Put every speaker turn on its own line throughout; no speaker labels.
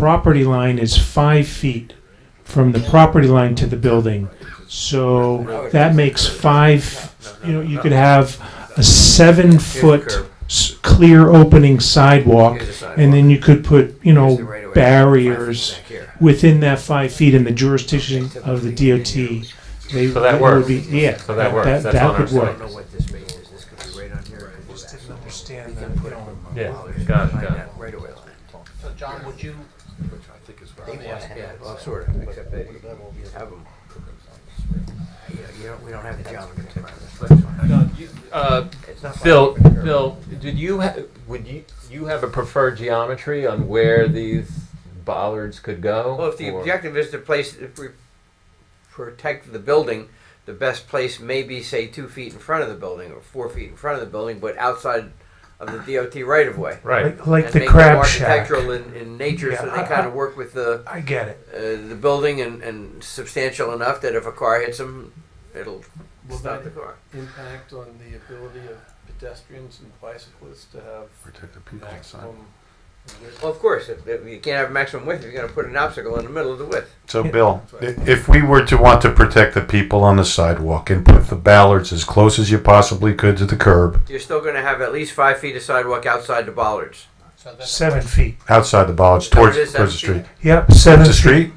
property line is five feet from the property line to the building. So that makes five, you know, you could have a seven-foot s- clear opening sidewalk, and then you could put, you know, barriers within that five feet in the jurisdiction of the DOT. They-
So that
it would
works.
be- Yeah.
So that works. That's
That
on
would
our
work.
side.
what this means, is this could be right on here. and
Just
that.
didn't understand
We
that,
can put
you know.
from
Yeah,
Mahler's
got it,
behind
got it.
that Right away line.
So John, would you,
They want to have, well, sort of, except that you have them. You know, you don't, we don't have the geometry.
Uh,
It's not like-
Phil, Phil, did you ha- would you you have a preferred geometry on where these bollards could go?
well, if the
Or-
objective is to place, if we protect the building, the best place may be, say, two feet in front of the building or four feet in front of the building, but outside of the DOT right of way.
right,
Like- Like
And
the
make them
crab shack.
Architectural in, in nature, so
Yeah, I-
they kind of work with the,
I get it.
uh, the building and, and substantial enough that if a car hits them, it'll
Will
stop
that-
the car.
impact on the ability of pedestrians and bicyclists to have maximum width?
Well, of course, if, if you can't have maximum width, you're going to put an obstacle in the middle of the width.
So, Bill, i- if we were to want to protect the people on the sidewalk and put the ballards as close as you possibly could to the curb,
You're still going to have at least five feet of sidewalk outside the bollards.
So then-
Seven feet.
outside the ballards, towards, towards the street.
Yep, seven.
Towards the street?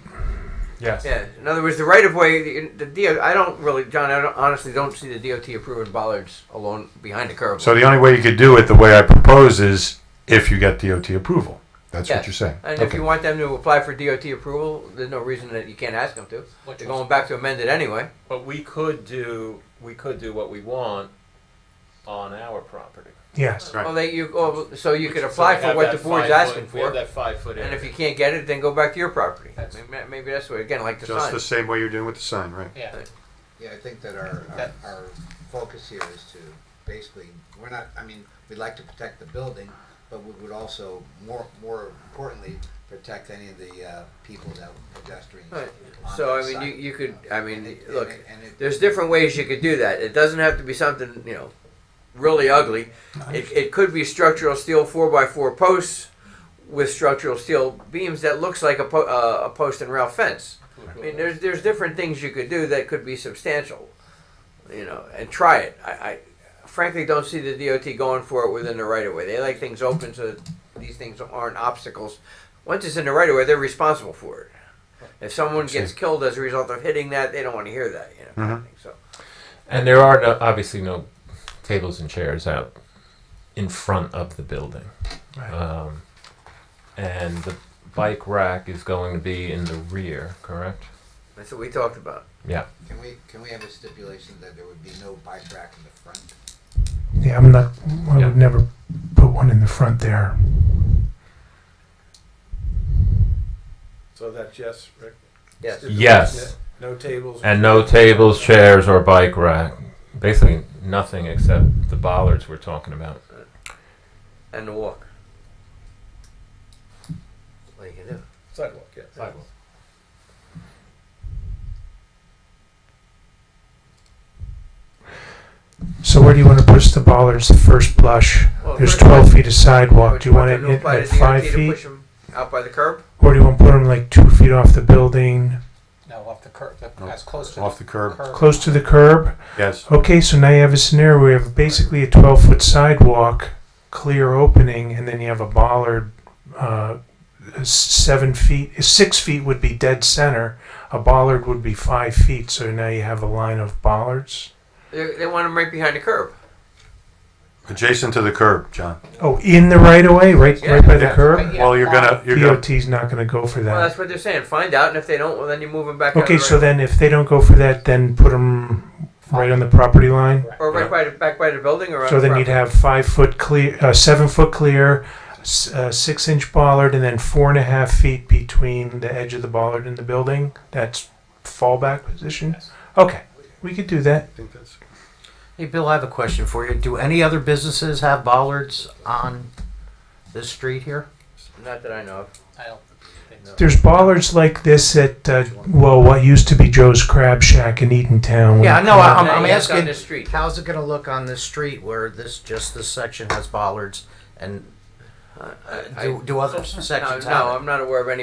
yes.
Yeah. In other words, the right of way, the, the DO, I don't really, John, I don't, honestly don't see the DOT approving bollards alone behind the curb.
So the only way you could do it, the way I propose, is if you get DOT approval. That's
Yeah.
what you're saying.
and if
Okay.
you want them to apply for DOT approval, there's no reason that you can't ask them to.
Which
They're
was-
going back to amend it anyway.
But we could do we could do what we want on our property.
Yes.
Right.
Well, they, you, oh, so you could apply for what the board's asking for.
that five foot
And if you can't get it, then go back to your property. Maybe, maybe that's what, again, like the
Just
sign.
the same way you're doing with the sign, right?
Yeah.
Yeah, I think that our, our,
That-
our focus here is to basically, we're not, I mean, we'd like to protect the building, but we would also, more, more importantly, protect any of the, uh, people that, pedestrians.
Right.
on
So, I
that
mean, you,
side.
you could, I
And
mean,
it- and
look,
it- and it-
there's different ways you could do that. It doesn't have to be something, you know, really ugly. It, it could be structural steel four by four posts with structural steel beams that looks like a, po- uh, a post and rail fence. I mean, there's, there's different things you could do that could be substantial, you know, and try it. I, I frankly don't see the DOT going for it within the right of way. They like things open so that these things aren't obstacles. Once it's in the right of way, they're responsible for it. If someone gets killed as a result of hitting that, they don't want to hear that, you know. kind
Mm-hmm.
of thing. So
And there are no, obviously no tables and chairs out in front of the building.
Right.
Um, and the bike rack is going to be in the rear, correct?
that's what we talked about.
Yeah.
Can we, can we have a stipulation that there would be no bike rack in the front?
Yeah, I'm not, I
Yeah.
would never put one in the front there.
So that's yes, Rick?
Yes.
Yes.
No tables?
And no tables, chairs, or bike rack. Basically, nothing except the bollards we're talking about.
And the walk. What you can do?
Sidewalk, yeah. Sidewalk.
So where do you want to push the bollards at first blush?
Well,
There's
first of all,
12 feet of sidewalk.
would
Do you want
them
it at
apply
at
to DOT
five
to
feet?
Push them out by the curb.
Or do you want to put them like two feet off the building,
No, off the curb, the- as close to
Off the curb,
curb.
close to the curb?
yes.
Okay, so now you have a scenario where you have basically a 12 foot sidewalk, clear opening, and then you have a bollard uh, s- seven feet, six feet would be dead center. A bollard would be five feet. So now you have a line of bollards.
They, they want them right behind the curb.
Adjacent to the curb, John.
Oh, in the right of way, right, right by the
Yeah.
curb.
Well, you're gonna, you're gonna
DOT's not going to go for
Well,
that.
that's what they're saying. Find out, and if they don't, well, then you move them back. out
Okay,
of the
so
right-
then if they don't go for that, then put them right on the property line.
or right by the, back by the building, or on
So
the
then you'd
property.
have five foot clear, uh, seven foot clear, s- uh, six inch bollard, and then four and a half feet between the edge of the bollard and the building. That's fallback position. Okay, we could do that.
Hey, Bill, I have a question for you. Do any other businesses have bollards on this street here?
Not that I know of.
I don't think so.
There's bollards like this at uh, well, what used to be Joe's Crab Shack in Eatontown.
Yeah, no, I'm,
Now
I'm
you have to on
asking,
this street.
how's it gonna look on this street where this, just this section has bollards and uh, do, do other
No,
sections have it?
no, I'm not aware of any